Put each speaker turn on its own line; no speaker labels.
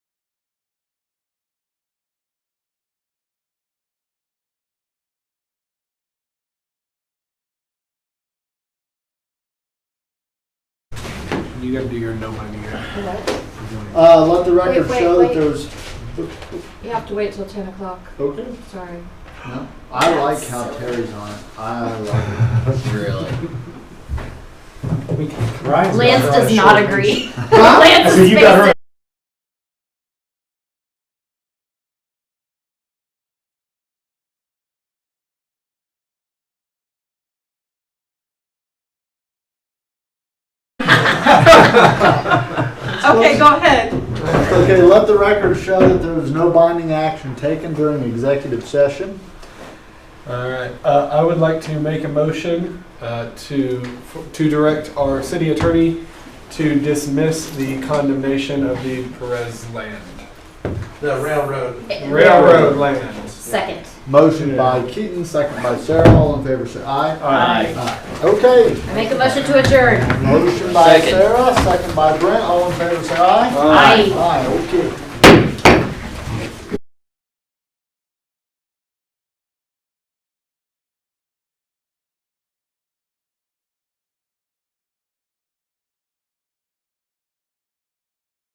You gotta do your no money here.
What?
Uh, let the record
Wait, wait,
show
wait.
that there's,
You have to wait till ten o'clock,
okay.
sorry.
No, I like how Terry's on it. I like it, really.
Lance does not agree.
Huh?
Lance's face is-
Okay, go ahead.
Okay, let the record show that there was no binding action taken during executive session.
All right, uh, I would like to make a motion uh, to, to direct our city attorney to dismiss the condemnation of the Perez land.
The railroad.
Railroad land.
Second.
Motion by Keaton, second by Sarah. All in favor, say aye.
Aye.
Aye. Okay,
I make a motion to adjourn.
motion by
Second.
Sarah, second by Brent. All in favor, say aye.
Aye.
Aye, okay.